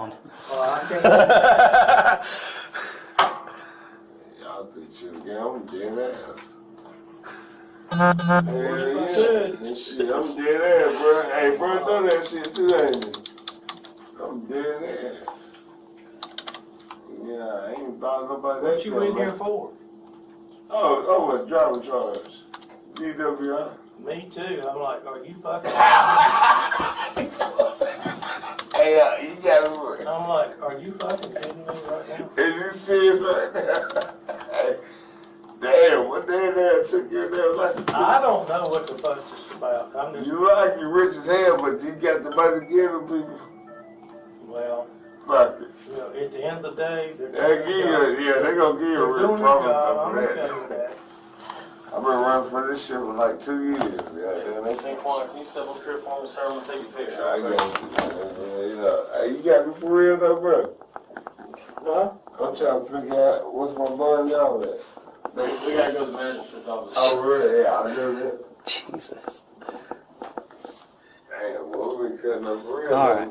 around. Y'all think shit again. I'm dead ass. Hell yeah. That shit, I'm dead ass, bro. Hey, bro, know that shit too, ain't you? I'm dead ass. Yeah, I ain't thought about that. What you in though, here man. for? Oh, oh, a driver charge. DWI. Me too. I'm like, are you fucking? Hey, uh, you got me. I'm like, are you fucking kidding me right now? Is you serious right now? Hey, Damn, what the hell that took you in there like? I don't know what the fuck this is about. I'm just, You like you rich as hell, but you got the money to give them people. well, Fuck it. you know, at the end of the day, they're They doing give their job. you, yeah, they gonna give you They're a doing real their problem job. I'm after okay with that. that. I've been running for this shit for like two years, goddamn. That's Saquon, can you step up here for me, sir? I'm gonna take a picture. I go, you know, hey, you got me for real though, bro. Huh? I'm trying to figure out what's my bun y'all at. We gotta go to the magistrate's office. Oh, really? Yeah, I know that. Jesus. Damn, what we cutting up for real? All right.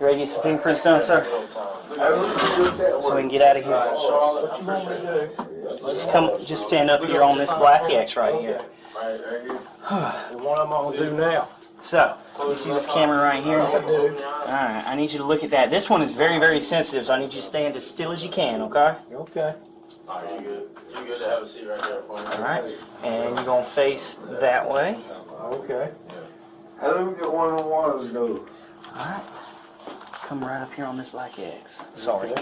You ready to get some fingerprints done, sir? Hey, let's do that So we can one. get out of here. Alright, Charlotte, What I you want me appreciate it. to do? Just come, just stand up here on this black X right here. Right, right here. The one I'm gonna do now. So, you see this camera right here? Alright, I need you to look at that. This one is very, very sensitive, so I need you to stand as still as you can, okay? Okay. Alright, you good. You good to have a seat right there for me. Alright? And you're gonna face that way. Okay. Hey, let me get one of the waters though. Alright? Come right up here on this black X. Sorry.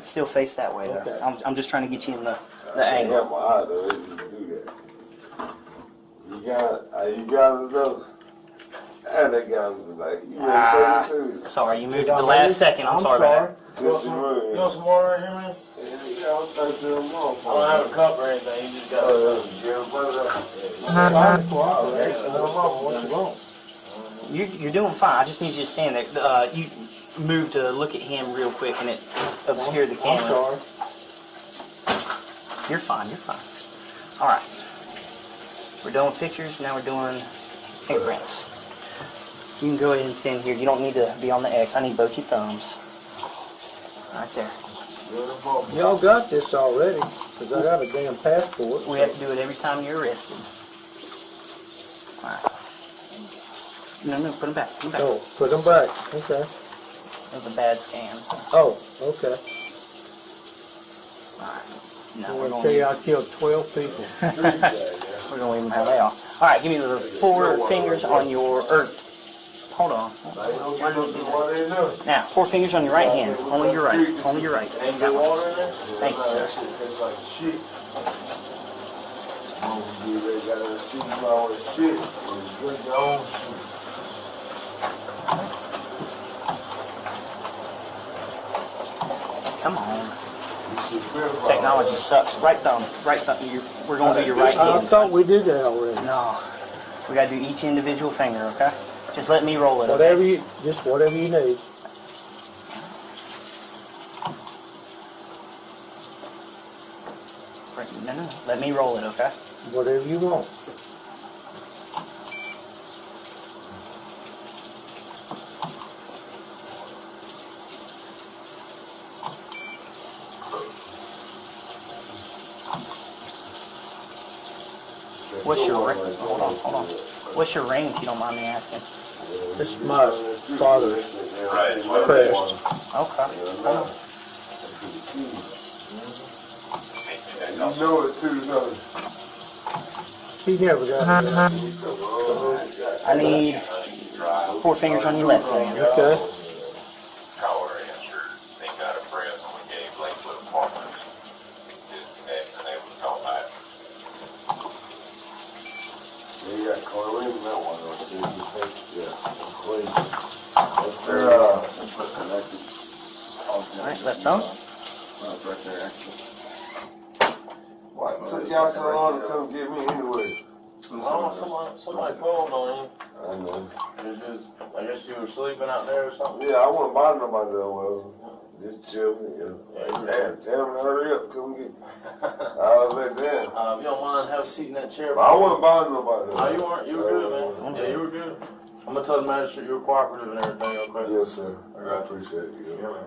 Still face that way though. I'm, I'm just trying to get you in the, the I angle. got my eye though, if you do that. You got, uh, you got it though. And that guy was like, you Ah. ready for it too? Sorry, you moved to the last second. I'm sorry about that. You This want is some, real. you want some water right here, man? Yeah, I was like, "Tell him off, I don't have man." a cup or anything, you just got Uh, a yeah, brother. Five o'clock, all right, so I don't know what you want. You're, you're doing fine. I just need you to stand there. Uh, you moved to look at him real quick and it obscured the I'm camera. sorry. You're fine, you're fine. All right. We're doing pictures, now we're doing fingerprints. You can go ahead and stand here. You don't need to be on the X. I need both your thumbs. Right there. Y'all got this already, 'cause I got a damn passport. We have to do it every time you're arrested. All right. No, no, put them back. Put them back. Oh, put them back. Okay. That was a bad scan. Oh, okay. All right. I No, we're going to want to tell you, I killed twelve people. We're gonna leave them how they are. All right, give me the four fingers on your. Er, hold on. Now, four fingers on your right hand. Only your right. Only your right. That one. water in there? Thank you, sir. Come on. Technology sucks. Right thumb. Right thumb. Your, we're gonna do your right I hand. thought we did that already. No. We gotta do each individual finger. Okay. Just let me roll it. Okay? Whatever you, just whatever you need. Right- No, no. no. Let me roll it. Okay. Whatever you want. What's your ring? Hold on. Hold on. What's your ring? If you don't mind me asking. This is my father's crest. Okay. Hold on. You know it too, don't you? He never got it. I need four fingers on your left hand. Okay. Collar answered, they got a press on the gay Blakewood Apartments. Disconnect, and they was called back. They got Corley in that one, or did you take, yeah, Corley. That's their, uh, connected. All right, left thumb. Why it took y'all so long to come get me anyway? I don't know, somebody, somebody called on I know. you. It was just, I guess you were sleeping out there or something. Yeah, I wouldn't bother nobody that well. Just chilling, yeah. Yeah, you were- Damn, damn, hurry up, come get me. I was like, damn. Uh, if you don't mind, have a seat in that chair. Oh, I wouldn't bother nobody. No, you weren't. You were good, man. Yeah, you were good. I'm gonna tell the magistrate you're cooperative and everything, okay? Yes, sir. I appreciate you. Yeah, man.